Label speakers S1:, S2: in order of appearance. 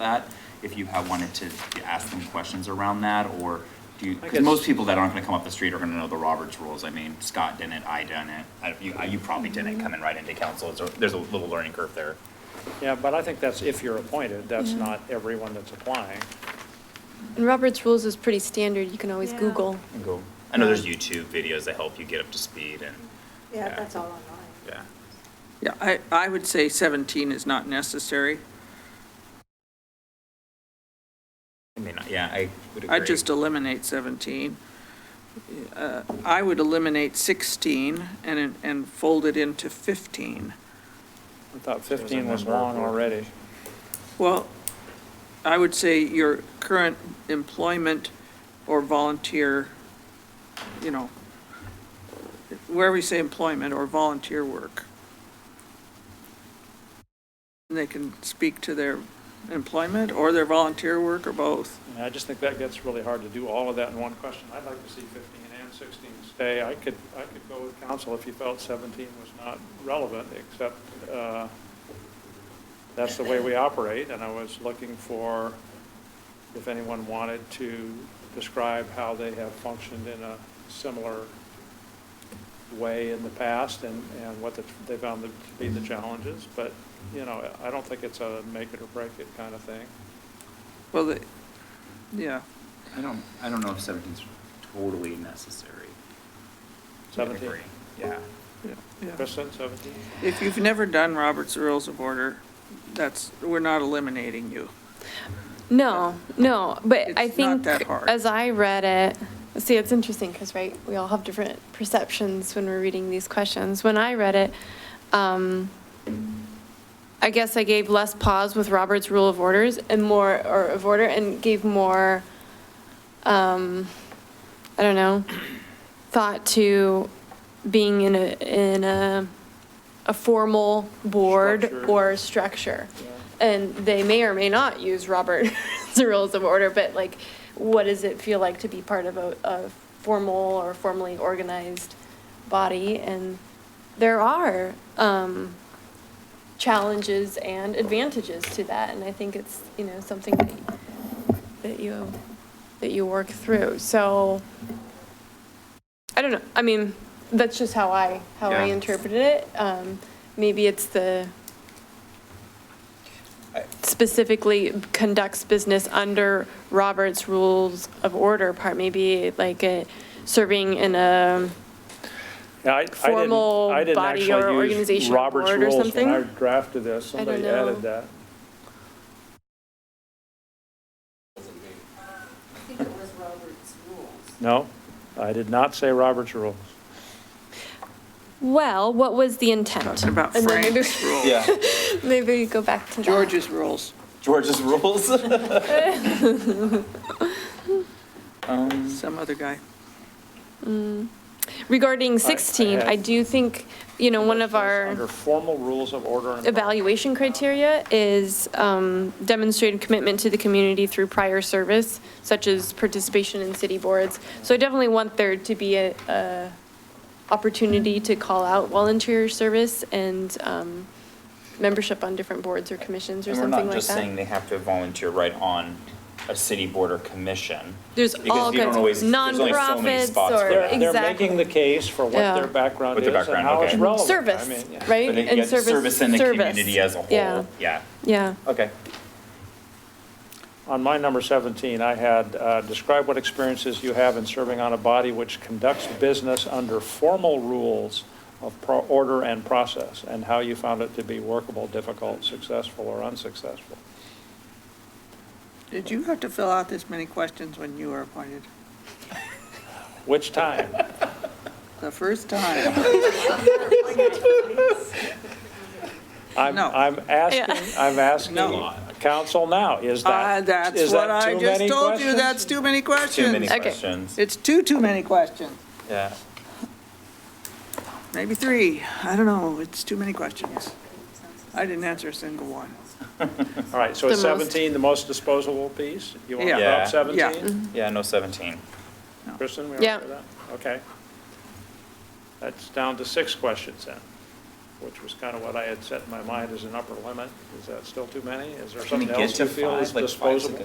S1: that, if you have wanted to ask them questions around that, or do you,
S2: I
S1: because
S2: guess-
S1: most people that aren't gonna come up the street are gonna know the Roberts rules, I mean, Scott didn't, I didn't, I- you, you probably didn't coming right into council, so there's a little learning curve there.
S2: Yeah, but I think that's if you're appointed, that's not everyone that's applying.
S3: And Robert's Rules is pretty standard, you can always
S4: Yeah.
S3: Google.
S1: And go. I know there's YouTube videos that help you get up to speed and,
S4: Yeah,
S1: Yeah.
S4: that's all online.
S1: yeah.
S5: Yeah, I, I would say 17 is not necessary.
S1: I mean, yeah, I would agree.
S5: I'd just eliminate 17. Uh, I would eliminate 16 and, and fold it into 15.
S2: I thought 15 was long already.
S5: Well, I would say your current employment or volunteer, you know, wherever you say employment or volunteer work. And they can speak to their employment or their volunteer work or both.
S2: And I just think that gets really hard to do all of that in one question. I'd like to see 15 and 16 stay. I could, I could go with council if you felt 17 was not relevant, except uh, that's the way we operate, and I was looking for if anyone wanted to describe how they have functioned in a similar way in the past and, and what the- they found to be the challenges, but, you know, I don't think it's a make it or break it kind of thing.
S5: Well, the, yeah,
S1: I don't, I don't know if seventeen's totally necessary. I'd
S2: 17.
S1: agree. Yeah.
S5: yeah, yeah.
S2: Kristen, 17?
S5: If you've never done Robert's Rules of Order, that's, we're not eliminating you.
S3: No, no, but
S5: It's
S3: I
S5: not
S3: think,
S5: that hard.
S3: as I read it, see, it's interesting, because, right, we all have different perceptions when we're reading these questions. When I read it, um, I guess I gave less pause with Robert's Rule of Orders and more, or of order, and gave more, um, I don't know, thought to being in a, in a, a formal board
S2: Structure.
S3: or structure. And they may or may not use Robert's Rules of Order, but like, what does it feel like to be part of a, a formal or formally organized body? And there are, um, challenges and advantages to that, and I think it's, you know, something that y- that you, that you work through, so, I don't know, I mean, that's just how I, how I
S1: Yeah.
S3: interpreted it, um, maybe it's the specifically conducts business under Robert's Rules of Order part, maybe like a, serving in a,
S2: Yeah, I- I didn't-
S3: Formal
S2: I didn't
S3: body
S2: actually
S3: or
S2: use
S3: organizational
S2: Robert's
S3: board or
S2: rules
S3: something?
S2: When I drafted this,
S3: I don't
S2: somebody
S3: know.
S2: added that.
S4: I think it was Robert's rules.
S2: No, I did not say Robert's rules.
S3: well, what was the intent?
S5: Talking about
S3: And then maybe-
S5: Frank's rules.
S1: Yeah,
S3: Maybe we go back to that.
S5: George's rules.
S1: George's rules.
S5: Some other guy.
S3: Regarding
S2: I- I
S3: 16, I
S2: had-
S3: do think, you know, one of
S2: Under
S3: our
S2: formal rules of order and.
S3: evaluation criteria is um, demonstrated commitment to the community through prior service, such as participation in city boards. So I definitely want there to be a, a opportunity to call out volunteer service and um, membership on different boards or commissions or
S1: And we're
S3: something
S1: not
S3: like
S1: just saying
S3: that.
S1: they have to volunteer right on a city board or commission.
S3: There's
S1: because
S3: all
S1: you don't
S3: kinds,
S1: always- there's only so many
S3: nonprofits
S1: spots for
S3: or,
S2: They're,
S1: that.
S2: they're making the
S3: exactly.
S2: case for what
S3: Yeah.
S2: their background
S1: What
S2: is
S1: the
S2: and
S1: background,
S2: how it's
S1: okay.
S2: relevant. Oh, I
S3: Service,
S2: mean, yeah.
S3: right?
S1: But it-
S3: And
S1: yeah, Service in the
S3: service.
S1: community as a
S3: Yeah,
S1: whole, yeah,
S3: yeah.
S1: okay.
S2: On my number 17, I had, uh, describe what experiences you have in serving on a body which conducts business under formal rules of pro- order and process, and how you found it to be workable, difficult, successful, or unsuccessful.
S5: Did you have to fill out this many questions when you were appointed?
S2: Which time?
S5: The first time?
S2: I'm,
S5: No.
S2: I'm asking, I'm asking
S5: No.
S2: council now, is
S5: Uh,
S2: that,
S5: That's
S2: is
S5: what
S2: that too
S5: I just
S2: many
S5: told you,
S2: questions?
S5: that's too many
S1: Too many
S5: questions.
S3: Okay.
S1: questions,
S5: It's too, too many questions.
S1: yeah.
S5: Maybe three, I don't know, it's too many questions. I didn't answer a single one.
S2: All right, so it's
S3: The most-
S2: 17, the most disposable piece? You want to
S5: Yeah.
S1: Yeah.
S2: drop 17?
S1: Yeah, no seventeen.
S2: Kristen, we all
S3: Yeah.
S2: right with that? Okay. That's down to six questions then. which was kind of what I had set in my mind as an upper limit. Is that still too many? Is there
S1: Can we
S2: something
S1: get
S2: else
S1: to
S2: you feel
S1: five?
S2: is
S1: Like, five's a
S2: disposable?